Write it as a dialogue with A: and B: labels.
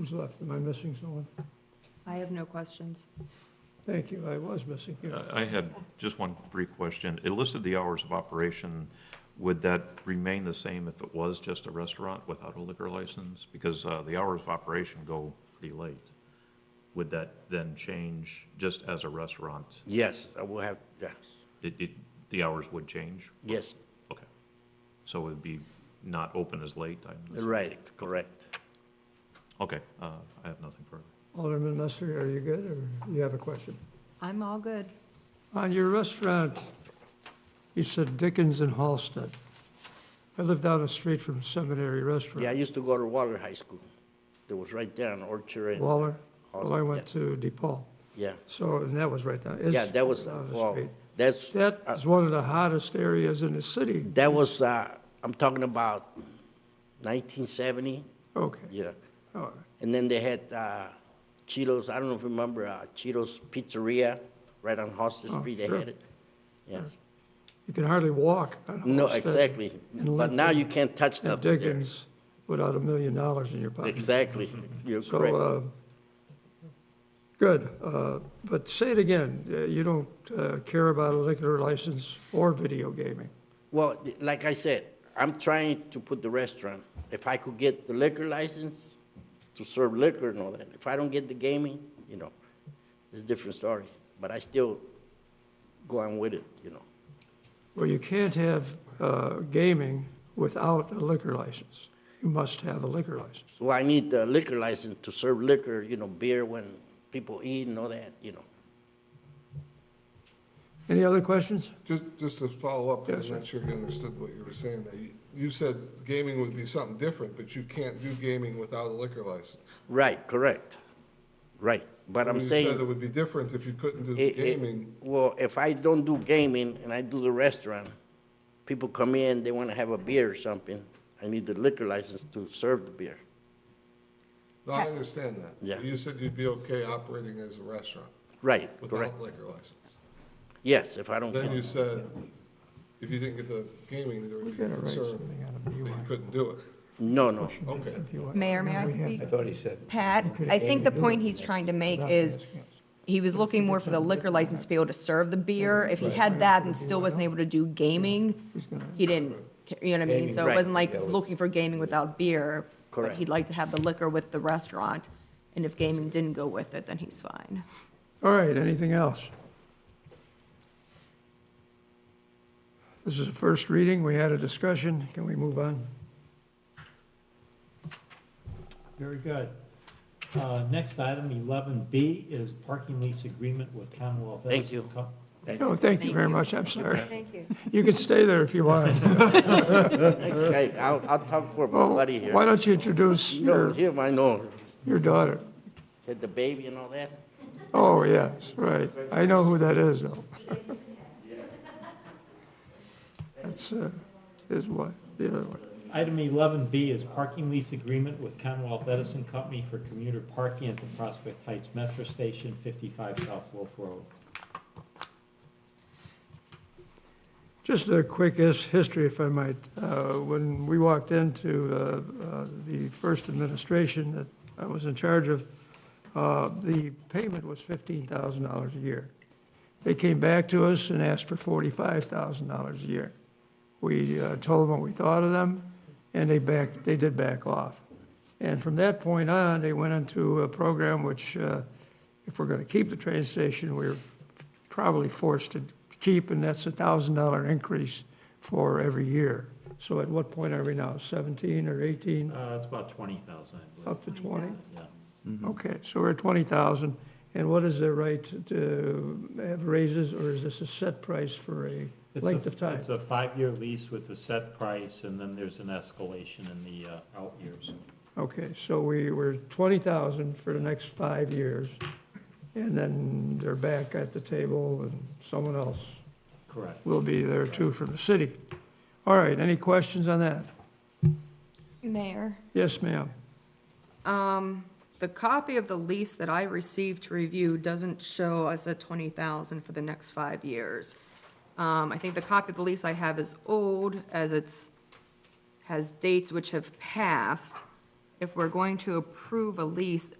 A: Who's left? Am I missing someone?
B: I have no questions.
A: Thank you, I was missing you.
C: I- I had just one brief question. It listed the hours of operation. Would that remain the same if it was just a restaurant without a liquor license? Because uh, the hours of operation go pretty late. Would that then change just as a restaurant?
D: Yes, I will have, yes,
C: It, it, the hours would change?
D: yes,
C: Okay. So it'd be not open as late? I'm assuming.
D: right, correct.
C: Okay, uh, I have nothing further.
A: Alderman Messer, are you good, or you have a question?
B: I'm all good.
A: On your restaurant, you said Dickens and Halsted. I live down the street from Seminary
D: Yeah, I
A: Restaurant.
D: used to go to Waller High School. That was right there on Orchard and,
A: Waller, well, I went to DePaul,
D: yeah.
A: so, and that was right down, it's
D: Yeah, that was,
A: down the
D: well, uh,
A: street.
D: that's,
A: That is one of the hottest areas in the city.
D: that was, uh, I'm talking about 1970,
A: Okay,
D: yeah.
A: all right.
D: And then they had uh, Cheetos, I don't know if you remember, uh, Cheetos Pizzeria, right on Hostage
A: Oh,
D: Street, they
A: sure.
D: had it. Yeah,
A: You can hardly walk on
D: no,
A: Halsted
D: exactly.
A: and
D: But now
A: Lincoln
D: you can't touch
A: And
D: that there.
A: Dickens without a million dollars in your pocket.
D: Exactly, you're
A: So,
D: correct.
A: uh, good, uh, but say it again, uh, you don't uh, care about a liquor license or video gaming.
D: Well, th- like I said, I'm trying to put the restaurant, if I could get the liquor license to serve liquor and all that, if I don't get the gaming, you know, it's a different story, but I still go on with it, you know.
A: Well, you can't have uh, gaming without a liquor license. You must have a liquor license.
D: Well, I need the liquor license to serve liquor, you know, beer when people eat and all that, you know.
A: Any other questions?
E: Just, just to follow up,
A: Yes,
E: because
A: sir.
E: I'm not sure you understood what you were saying, that you, you said gaming would be something different, but you can't do gaming without a liquor license.
D: Right, correct, right, but I'm
E: You said it
D: saying.
E: would be different if you couldn't do
D: it- it-
E: gaming.
D: Well, if I don't do gaming and I do the restaurant, people come in, they wanna have a beer or something, I need the liquor license to serve the beer.
E: No, I understand that.
D: Yeah.
E: You said you'd be okay operating as a restaurant
D: Right, correct,
E: without liquor license.
D: yes, if I don't
E: Then you
D: get,
E: said, if you didn't get the gaming, there
A: We're
E: would be
A: gonna write
E: concern
A: something out of
E: that you
A: BYOC.
E: couldn't do it.
D: no, no,
E: Okay.
B: Mayor, may I
A: We have
B: speak?
A: to-
F: thought he said.
B: Pat, I think the point he's trying to make is, he was looking more for the liquor license to be able to serve the beer. If he had that and still wasn't able to do gaming, he didn't, ca- you know what I mean? So it
D: Right.
B: wasn't like looking for gaming without beer, but
D: Correct.
B: he'd like to have the liquor with the restaurant. And if gaming didn't go with it, then he's fine.
A: All right, anything else? This is the first reading, we had a discussion, can we move on?
G: Very good. Uh, Next item, eleven B, is parking lease agreement with Commonwealth
D: Thank
G: Edison
D: you.
G: Co-
A: No, thank you very much, I'm sorry.
B: Thank you.
A: You can stay there if you want.
D: Okay, I'll, I'll talk for my
A: Well,
D: buddy
A: Oh, why
D: here.
A: don't you introduce your,
D: No, him, I know,
A: your daughter?
D: had the baby and all that,
A: Oh, yes, right. I know who that is, though. That's uh, his wife, the other one.
G: Item eleven B is parking lease agreement with Commonwealth Edison Company for commuter parking at the Prospect Heights Metro Station, fifty-five South Wolf Road.
A: Just a quick his- history, if I might. Uh, When we walked into uh, uh, the first administration that I was in charge of, uh, the payment was $15,000 a year. They came back to us and asked for $45,000 a year. We uh, told them what we thought of them, and they backed, they did back off. And from that point on, they went into a program which, uh, if we're going to keep the train station, we're probably forced to keep, and that's a thousand dollar increase for every year. So at what point are we now, seventeen or eighteen,
G: Uh, It's about twenty thousand, I believe.
A: up to twenty?
G: Yeah. Hmm.
A: Okay, so we're at twenty thousand, and what is the right to have raises, or is this a set price for a
G: It's a-
A: length of time?
G: It's a five-year lease with a set price, and then there's an escalation in the uh, out years.
A: Okay, so we were twenty thousand for the next five years, and then they're back at the table, and someone else
G: Correct.
A: will be there too from the city. All right, any questions on that?
B: Mayor?
A: Yes, ma'am.
B: Um, the copy of the lease that I received to review doesn't show us a twenty thousand for the next five years. Um, I think the copy of the lease I have is old, as it's, has dates which have passed. if we're going to approve a lease,